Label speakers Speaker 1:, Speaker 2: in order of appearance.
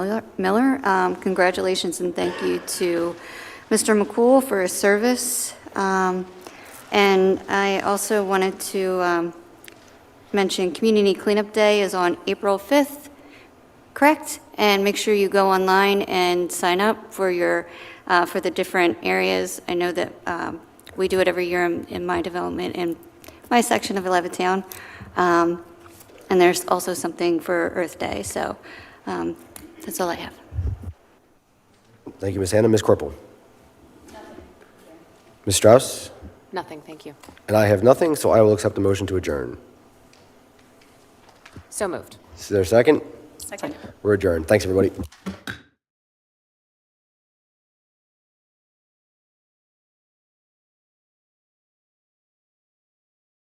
Speaker 1: Miller- Miller. Um, Congratulations and thank you to Mr. McCool for his service. Um, And I also wanted to um, mention Community Cleanup Day is on April 5th, correct? And make sure you go online and sign up for your, uh, for the different areas. I know that um, we do it every year in in my development, in my section of Levittown. Um, And there's also something for Earth Day, so um, that's all I have.
Speaker 2: Thank you, Ms. Hannah. Ms. Corporal? Ms. Strauss?
Speaker 3: Nothing, thank you.
Speaker 2: And I have nothing, so I will accept the motion to adjourn.
Speaker 3: So moved.
Speaker 2: Is there a second?
Speaker 1: Second.
Speaker 2: We're adjourned. Thanks, everybody.